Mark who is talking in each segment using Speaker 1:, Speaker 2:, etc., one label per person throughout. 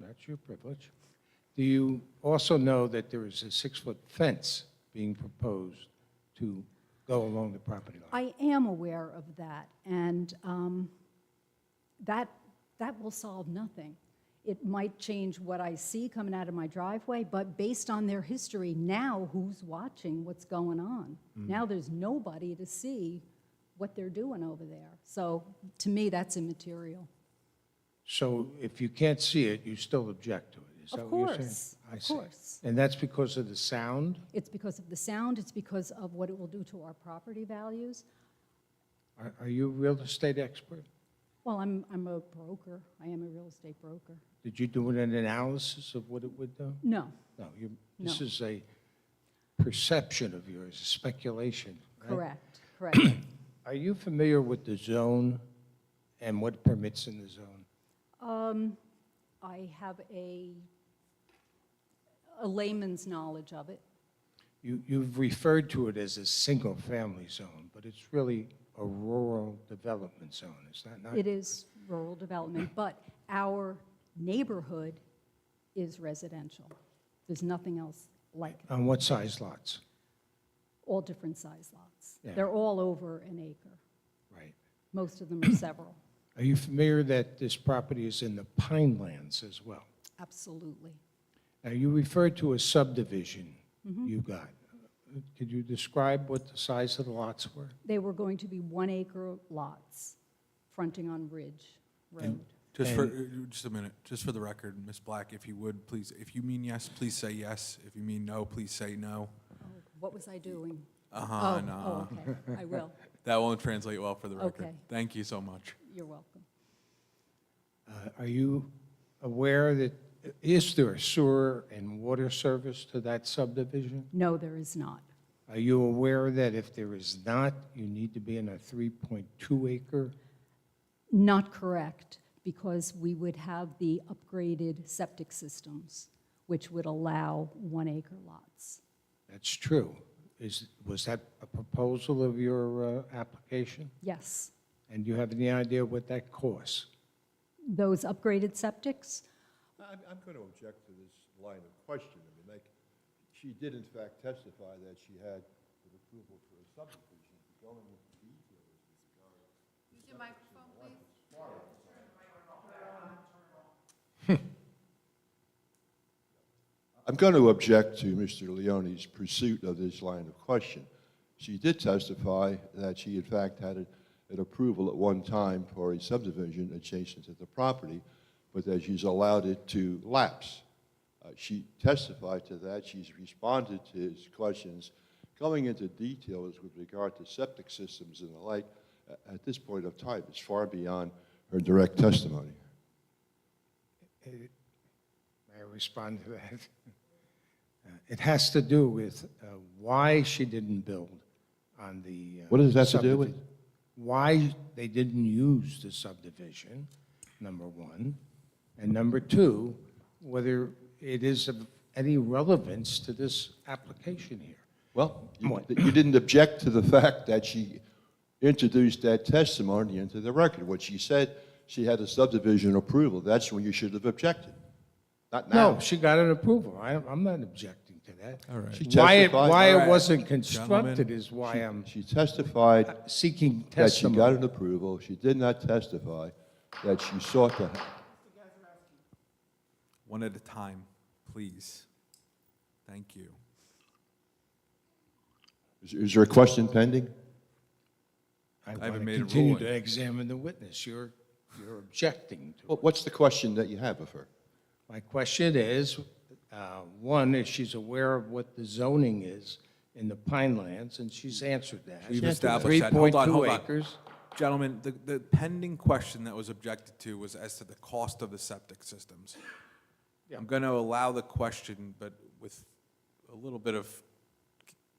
Speaker 1: That's your privilege. Do you also know that there is a six-foot fence being proposed to go along the property line?
Speaker 2: I am aware of that, and um, that, that will solve nothing. It might change what I see coming out of my driveway, but based on their history, now who's watching what's going on?
Speaker 1: Mm.
Speaker 2: Now there's nobody to see what they're doing over there. So to me, that's immaterial.
Speaker 1: So if you can't see it, you still object to it? Is
Speaker 2: Of
Speaker 1: that what you're saying?
Speaker 2: course,
Speaker 1: I
Speaker 2: of
Speaker 1: see.
Speaker 2: course.
Speaker 1: And that's because of the sound?
Speaker 2: It's because of the sound, it's because of what it will do to our property values.
Speaker 1: Are- Are you a real estate expert?
Speaker 2: Well, I'm, I'm a broker, I am a real estate broker.
Speaker 1: Did you do an analysis of what it would do?
Speaker 2: No,
Speaker 1: No, you, this
Speaker 2: No.
Speaker 1: is a perception of yours, a speculation, right?
Speaker 2: correct, correct.
Speaker 1: Are you familiar with the zone and what permits in the zone?
Speaker 2: Um, I have a, a layman's knowledge of it.
Speaker 1: You, you've referred to it as a single-family zone, but it's really a rural development zone, is that not?
Speaker 2: It is rural development, but our neighborhood is residential. There's nothing else like it,
Speaker 1: On what size lots?
Speaker 2: all different size lots.
Speaker 1: Yeah.
Speaker 2: They're all over an acre.
Speaker 1: Right.
Speaker 2: Most of them are several.
Speaker 1: Are you familiar that this property is in the Pine Lands as well?
Speaker 2: Absolutely.
Speaker 1: Now, you referred to a subdivision you got. Could you describe what the size of the lots were?
Speaker 2: They were going to be one-acre lots fronting on Ridge Road.
Speaker 3: Just for, uh, just a minute, just for the record, Ms. Black, if you would, please, if you mean yes, please say yes. If you mean no, please say no.
Speaker 2: Oh, What was I doing?
Speaker 3: Uh-huh,
Speaker 2: Oh,
Speaker 3: and, uh,
Speaker 2: oh, okay, I will.
Speaker 3: that won't translate well for the record.
Speaker 2: Okay.
Speaker 3: Thank you so much.
Speaker 2: You're welcome.
Speaker 1: Uh, Are you aware that, is there a sewer and water service to that subdivision?
Speaker 2: No, there is not.
Speaker 1: Are you aware that if there is not, you need to be in a 3.2 acre?
Speaker 2: Not correct, because we would have the upgraded septic systems, which would allow one-acre lots.
Speaker 1: That's true. Is, was that a proposal of your uh, application?
Speaker 2: Yes,
Speaker 1: And do you have any idea what that costs?
Speaker 2: those upgraded septics,
Speaker 4: I'm, I'm going to object to this line of questioning. I mean, like, she did in fact testify that she had an approval for a subdivision, going into detail. I'm going to object to Mr. Leone's pursuit of this line of question. She did testify that she in fact had a- an approval at one time for a subdivision adjacent to the property, but that she's allowed it to lapse. Uh, She testified to that, she's responded to his questions, going into details with regard to septic systems and the like, a- at this point of time, is far beyond her direct testimony.
Speaker 1: May I respond to that? Uh, It has to do with uh, why she didn't build on the. uh,
Speaker 4: What does that have to do with-
Speaker 1: subdivi- Why they didn't use the subdivision, number one. And number two, whether it is of any relevance to this application here.
Speaker 4: Well, you
Speaker 1: What?
Speaker 4: you didn't object to the fact that she introduced that testimony into the record. What she said, she had a subdivision approval, that's when you should have objected, not now.
Speaker 1: No, she got an approval. I, I'm not objecting to that.
Speaker 3: All right.
Speaker 4: She
Speaker 1: Why it,
Speaker 4: testified-
Speaker 1: why
Speaker 3: All
Speaker 1: it
Speaker 3: right.
Speaker 1: wasn't constructed is why I'm
Speaker 4: She testified
Speaker 1: seeking
Speaker 4: that she got
Speaker 1: testimony.
Speaker 4: an approval, she did not testify that she sought to,
Speaker 3: One at a time, please. Thank you.
Speaker 4: is- is there a question pending?
Speaker 1: I
Speaker 3: haven't
Speaker 1: want to
Speaker 3: made a
Speaker 1: continue
Speaker 3: ruling.
Speaker 1: to examine the witness. You're, you're objecting to.
Speaker 4: What- What's the question that you have of her?
Speaker 1: My question is, uh, one, is she's aware of what the zoning is in the Pine Lands, and she's answered that.
Speaker 3: We've established that. Hold on, hold
Speaker 1: 3.2
Speaker 3: on.
Speaker 1: acres.
Speaker 3: Gentlemen, the, the pending question that was objected to was as to the cost of the septic systems. I'm going to allow the question, but with a little bit of,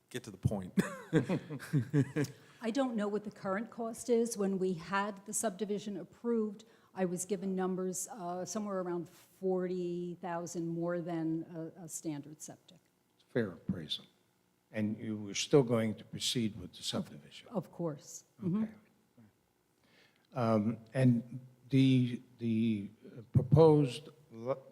Speaker 3: get to the point.
Speaker 2: I don't know what the current cost is. When we had the subdivision approved, I was given numbers uh, somewhere around 40,000 more than a- a standard septic.
Speaker 1: Fair appraisal. And you were still going to proceed with the subdivision.
Speaker 2: Of course,
Speaker 1: Okay. Um, And the, the proposed lo-